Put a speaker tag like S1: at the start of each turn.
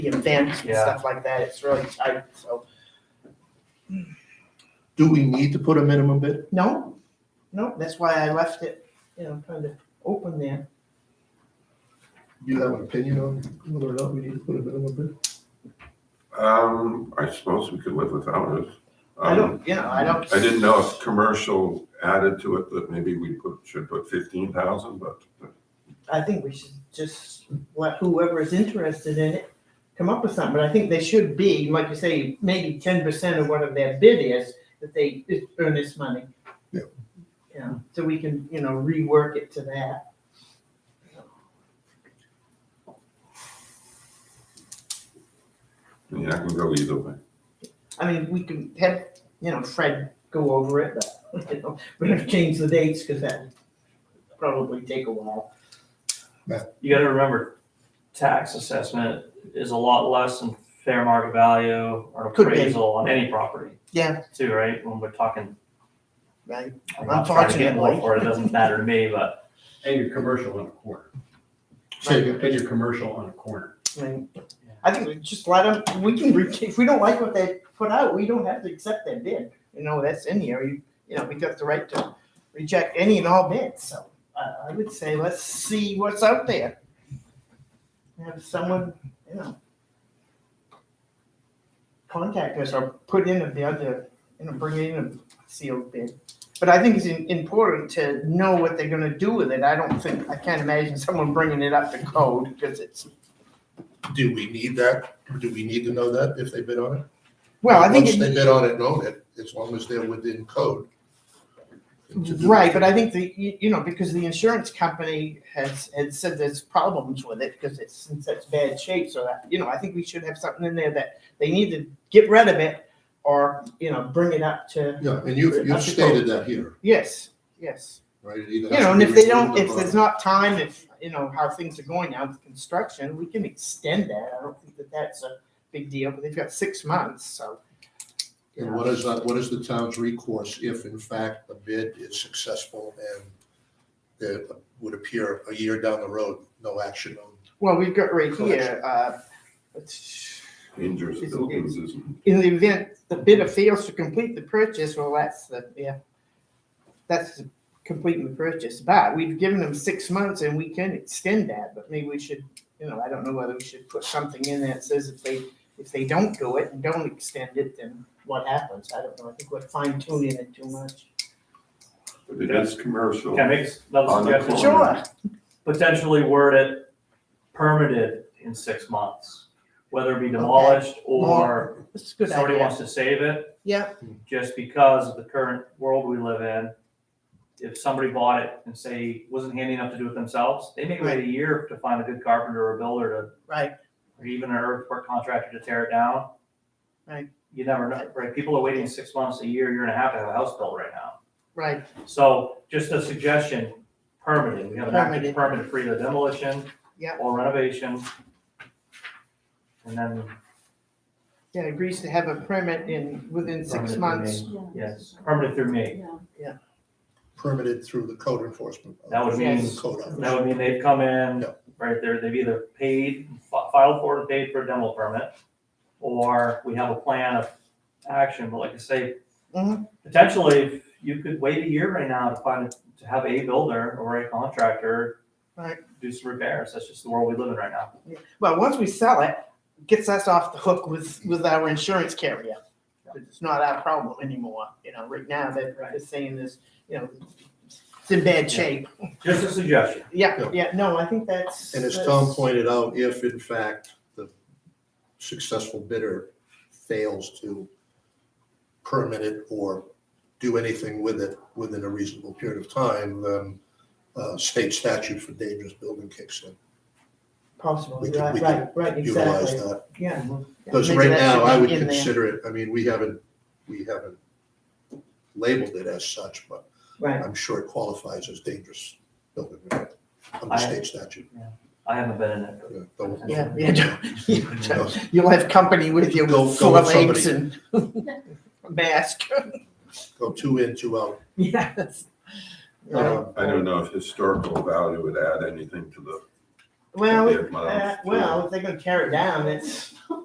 S1: events and
S2: Yeah.
S1: stuff like that. It's really tight, so.
S3: Do we need to put a minimum bid?
S1: No, no, that's why I left it, you know, kind of open there.
S3: Do you have an opinion on whether or not we need to put a minimum bid?
S4: Um, I suppose we could live without it.
S1: I
S4: Um,
S1: don't, you know, I don't.
S4: I didn't know if commercial added to it that maybe we put, should put fifteen thousand, but
S1: I think we should just let whoever is interested in it come up with something, but I think they should be, like you say, maybe ten percent of whatever their bid is, that they earn this money.
S3: Yeah.
S1: Yeah, so we can, you know, rework it to that.
S4: I mean, I can go either way.
S1: I mean, we can have, you know, Fred go over it, but, you know, we're gonna change the dates, cause that probably take a while.
S2: You gotta remember, tax assessment is a lot less than fair market value or
S1: Could be.
S2: appraisal on any property.
S1: Yeah.
S2: Too, right? When we're talking,
S1: Right.
S2: I'm not trying to get more
S1: Unfortunately.
S2: for it, it doesn't matter to me, but
S5: And your commercial on a corner.
S3: Say again.
S5: And your commercial on a corner.
S1: I mean, I think we just let them, we can, re- if we don't like what they put out, we don't have to accept that bid. You know, that's in here, you, you know, we got the right to reject any and all bids, so I, I would say let's see what's out there. Have someone, you know, contact us or put in a bid, or, you know, bring in a sealed bid. But I think it's im- important to know what they're gonna do with it. I don't think, I can't imagine someone bringing it up to code, because it's
S3: Do we need that? Or do we need to know that if they bid on it?
S1: Well, I think,
S3: Once they
S1: it-
S3: bid on it and own it, as long as they're within code. to do
S1: right,
S3: it.
S1: but I think the, you you know, because the insurance company has, had said there's problems with it because it's in such bad shape, so that, you know, I think we should have something in there that they need to get rid of it or, you know, bring it up to,
S3: Yeah, and you've, you've
S1: That's the
S3: stated that here,
S1: yes, yes.
S3: right? It either
S1: You
S3: has
S1: know,
S3: to
S1: and
S3: be
S1: if they
S3: removed
S1: don't, if
S3: or-
S1: there's not time, if, you know, how things are going now with construction, we can extend that. I don't think that that's a big deal, but they've got six months, so. you
S3: And
S1: know.
S3: what is that, what is the town's recourse if in fact the bid is successful and there would appear a year down the road, no action on?
S1: Well, we've got right here,
S3: Collection.
S1: uh, it's-
S4: Injures
S1: It's-
S4: buildings isn't.
S1: in the event the bidder fails to complete the purchase, well, that's the, yeah. That's the completing the purchase, but we've given them six months and we can extend that, but maybe we should, you know, I don't know whether we should put something in that says if they, if they don't do it and don't extend it, then what happens? I don't know, I think we're fine tuning it too much.
S4: But it is commercial.
S2: can I make another
S4: On the
S2: suggestion?
S4: corner. Sure.
S2: Potentially word it permitted in six months, whether it be demolished or
S1: That's a good
S2: somebody
S1: idea.
S2: wants to save it.
S1: Yeah,
S2: just because of the current world we live in, if somebody bought it and say wasn't handy enough to do it themselves, they may wait a year to find a good carpenter or builder
S1: right,
S2: to, or even an earthwork contractor to tear it down.
S1: Right.
S2: You never know, right? People are waiting six months, a year, year and a half to have a house built right now.
S1: right,
S2: So just a suggestion, permitting, we have an
S1: Permitting.
S2: active permit for either demolition
S1: Yep.
S2: or renovation. And then,
S1: yeah, agrees to have a permit in, within six
S2: Permitted
S1: months.
S2: yes, permitted through me.
S6: Yeah.
S3: permitted through the code enforcement.
S2: That would
S1: mean-
S3: The Code office.
S2: That would mean they've come in,
S3: Yeah.
S2: right, there. they've either paid, fi- filed for and paid for a demo permit, or we have a plan of action, but like I say,
S1: Mhm.
S2: potentially, you could wait a year right now to find, to have a builder or a contractor
S1: Right.
S2: do some repairs, that's just the world we live in right now.
S1: Well, once we sell it, it gets us off the hook with, with our insurance carrier. It's not our problem anymore, you know, right now that they're saying this, you know, it's in bad shape.
S2: Just a suggestion,
S1: Yeah,
S3: Yeah.
S1: yeah, no, I think that's.
S3: And as Tom
S1: that's-
S3: pointed out, if in fact the successful bidder fails to permit it or do anything with it within a reasonable period of time, then uh, state statute for dangerous building kicks in.
S1: Possible,
S3: we can-
S1: right,
S3: we can
S1: right, right,
S3: Utilize
S1: exactly,
S3: that.
S1: yeah.
S3: Because
S1: Maybe
S3: right
S1: that
S3: now,
S1: should
S3: I
S1: be
S3: would
S1: in there.
S3: consider it, I mean, we haven't, we haven't labeled it as such, but
S1: Right,
S3: I'm sure it qualifies as dangerous building under the
S2: I-
S3: state statute.
S2: I haven't been in it, but
S3: Yeah, don't-
S1: yeah, yeah, don't- yeah,
S3: don't-
S1: don't- you'll have company with you,
S3: Go- go
S1: full of
S3: with
S1: eggs and mask,
S3: Go two in, two out.
S1: yes.
S3: Um,
S4: I don't know if historical value would add anything to the
S1: Well,
S4: Yeah, my-
S1: uh, well, if they're gonna tear it down, it's